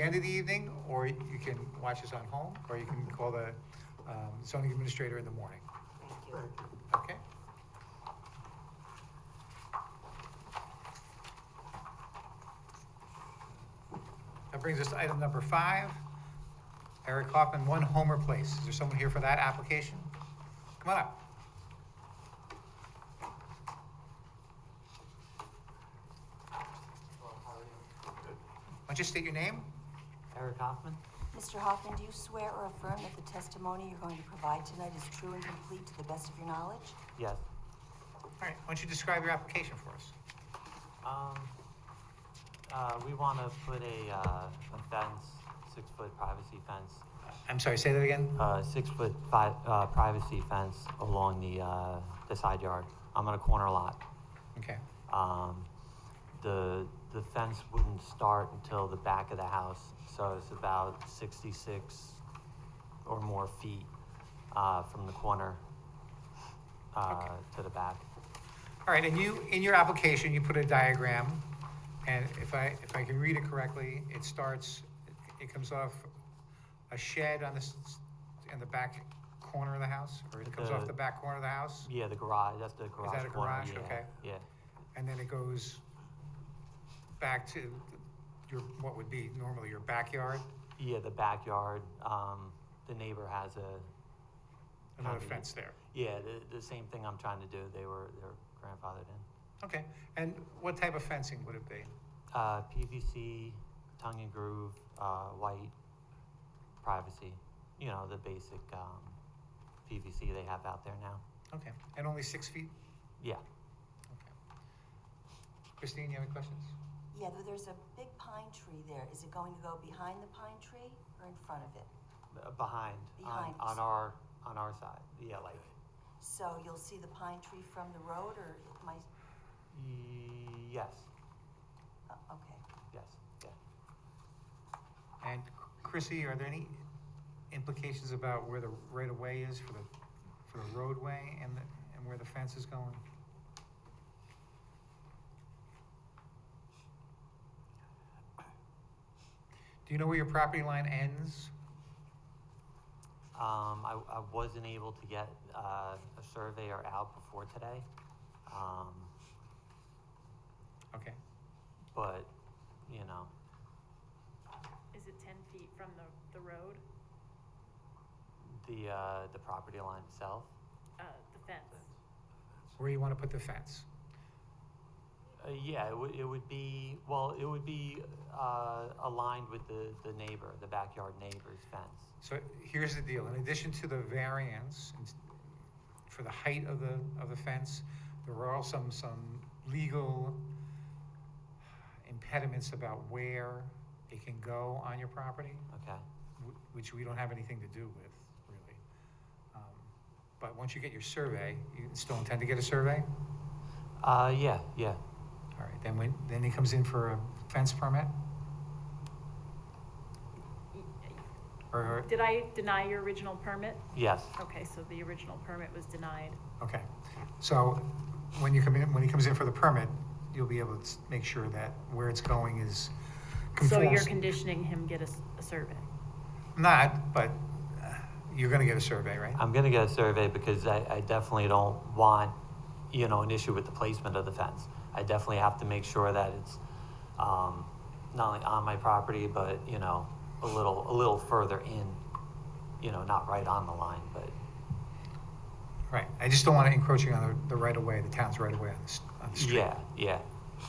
the end of the evening, or you can watch us on home, or you can call the um, zoning administrator in the morning, Thank you. Thank you. okay? That brings us to item number five, Eric Hoffman, One Homer Place. Is there someone here for that application? Come on up. Why don't you state your name? Eric Hoffman? Mr. Hoffman, do you swear or affirm that the testimony you're going to provide tonight is true and complete to the best of your knowledge? Yes. All right, why don't you describe your application for us? Um, uh, we want to put a, uh, a fence, six-foot privacy fence, I'm sorry, say that again? uh, six-foot fi- uh, privacy fence along the, uh, the side yard. I'm on a corner lot. Okay, Um, the, the fence wouldn't start until the back of the house, so it's about sixty-six or more feet, uh, from the corner, uh, to the back. all right, and you, in your application, you put a diagram, and if I, if I can read it correctly, it starts, it comes off a shed on the, s- in the back corner of the house, or it comes off the The- back corner of the house, Yeah, the garage, that's the garage that a corner, garage? yeah, Okay. Yeah, and then it goes back to your, what would be normally your backyard, yeah, the backyard, um, the neighbor has a, another Copy. fence there. yeah, the, the same thing I'm trying to do, they were, they were grandfathered in. Okay, and what type of fencing would it be? Uh, PVC, tongue and groove, uh, white, privacy, you know, the basic, um, PVC they have out there now, Okay, and only six feet? yeah. Okay. Christine, you have any questions? Yeah, but there's a big pine tree there. Is it going to go behind the pine tree or in front of it? b- Behind, on, Behind. on our, on our side, yeah, like, So you'll see the pine tree from the road or my, y- yes, oh, okay. yes, yeah. And Chrissy, are there any implications about where the right-of-way is for the, for the roadway and, the- and where the fence is going? Do you know where your property line ends? Um, I, I wasn't able to get, uh, a surveyor out before today, um, Okay, but, you know, Is it ten feet from the, the road, the, uh, the property line itself, uh, the fence? where you want to put the fence? uh, yeah, it would, it would be, well, it would be, uh, aligned with the, the neighbor, the backyard neighbor's fence. So here's the deal, in addition to the variance and s- for the height of the, of the fence, there are also some, some legal impediments about where it can go on your property, Okay, wh- which we don't have anything to do with, really. Um, But once you get your survey, you still intend to get a survey? uh, yeah, yeah, All right, then when, then he comes in for a fence permit? Or- Or, Did I deny your original permit? yes, Okay, so the original permit was denied. Okay, so when you come in, when he comes in for the permit, you'll be able to s- make sure that where it's going is So you're conforms. conditioning him get a, s- a survey? Not, but uh, you're gonna get a survey, right? I'm gonna get a survey because I, I definitely don't want, you know, an issue with the placement of the fence. I definitely have to make sure that it's, um, not only on my property, but, you know, a little, a little further in, you know, not right on the line, but, Right, I just don't want it encroaching on the, the right of way, the town's right of way on the, s- on the street. yeah, yeah,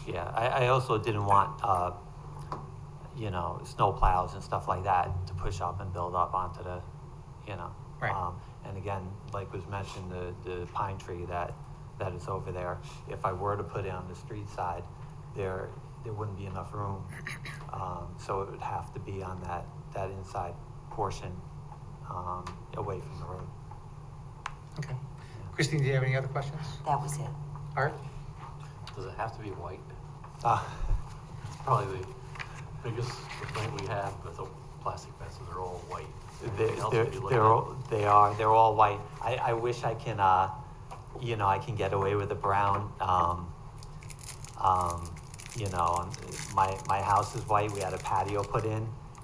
yeah. I, I also didn't want, uh, you know, snow plows and stuff like that to push up and build up onto the, you know. Right. Um, And again, like was mentioned, the, the pine tree that, that is over there, if I were to put it on the street side, there, there wouldn't be enough room. Um, So it would have to be on that, that inside portion, um, away from the road. Okay. Christine, do you have any other questions? That was it. Art? Does it have to be white? Uh, It's probably the biggest complaint we have with the plastic fences are all white. They're, Everything else they're, would be looking- they're all, they are, they're all white. I, I wish I can, uh, you know, I can get away with the brown, um, um, you know, um, my, my house is white, we had a patio put in,